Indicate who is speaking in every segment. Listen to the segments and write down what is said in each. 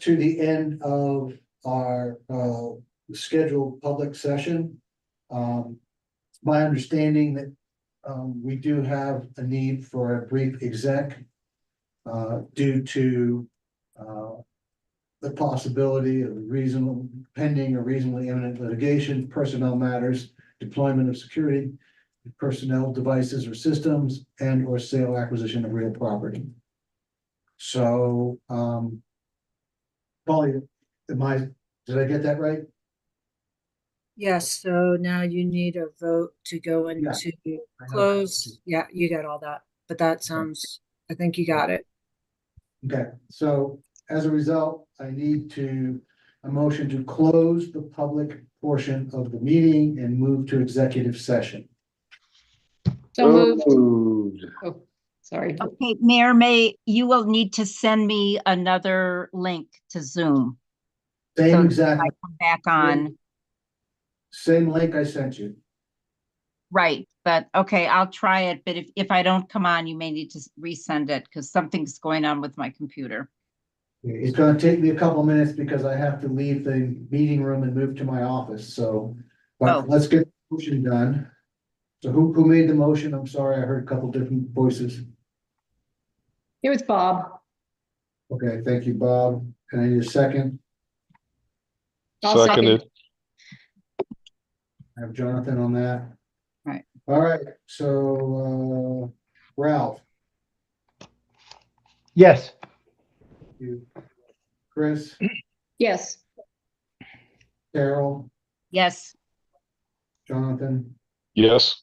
Speaker 1: to the end of our uh scheduled public session. Um, it's my understanding that um we do have a need for a brief exec. Uh, due to uh the possibility of reasonable pending or reasonably imminent litigation, personnel matters, deployment of security. Personnel devices or systems and or sale acquisition of real property. So um Polly, am I, did I get that right?
Speaker 2: Yes, so now you need a vote to go
Speaker 1: Yeah.
Speaker 2: into close. Yeah, you got all that, but that sounds, I think you got it.
Speaker 1: Okay, so as a result, I need to, a motion to close the public portion of the meeting and move to executive session.
Speaker 3: So moved.
Speaker 4: moved.
Speaker 3: Oh, sorry.
Speaker 5: Okay, Mayor May, you will need to send me another link to Zoom.
Speaker 1: Same
Speaker 5: So-
Speaker 1: exact,
Speaker 5: I come back on,
Speaker 1: same link I sent you.
Speaker 5: right, but okay, I'll try it, but if, if I don't come on, you may need to s- resend it because something's going on with my computer.
Speaker 1: It's gonna take me a couple minutes because I have to leave the meeting room and move to my office, so.
Speaker 5: Oh.
Speaker 1: But let's get the motion done. So who, who made the motion? I'm sorry, I heard a couple different voices.
Speaker 3: It was Bob.
Speaker 1: Okay, thank you, Bob. Can I need a second?
Speaker 3: I'll second.
Speaker 4: Seconded.
Speaker 1: I have Jonathan on that.
Speaker 5: Right.
Speaker 1: All right, so uh, Ralph,
Speaker 6: Yes.
Speaker 1: you, Chris,
Speaker 3: Yes,
Speaker 1: Carol,
Speaker 5: Yes,
Speaker 1: Jonathan,
Speaker 4: Yes.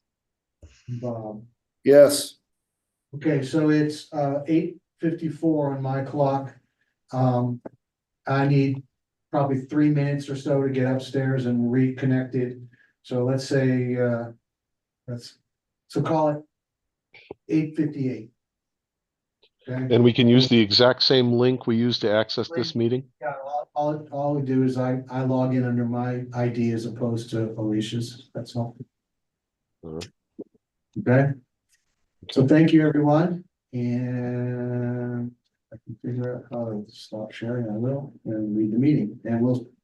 Speaker 1: and Bob.
Speaker 4: Yes.
Speaker 1: Okay, so it's uh eight fifty-four on my clock. Um, I need probably three minutes or so to get upstairs and reconnected. So let's say uh, let's, so call it eight fifty-eight. Okay?
Speaker 4: And we can use the exact same link we used to access this meeting?
Speaker 1: Yeah, all- all, all we do is I, I log in under my ID as opposed to Alicia's, that's all.
Speaker 4: Alright.
Speaker 1: Okay? So thank you, everyone, and I can figure out how to stop sharing, I will, and read the meeting, and we'll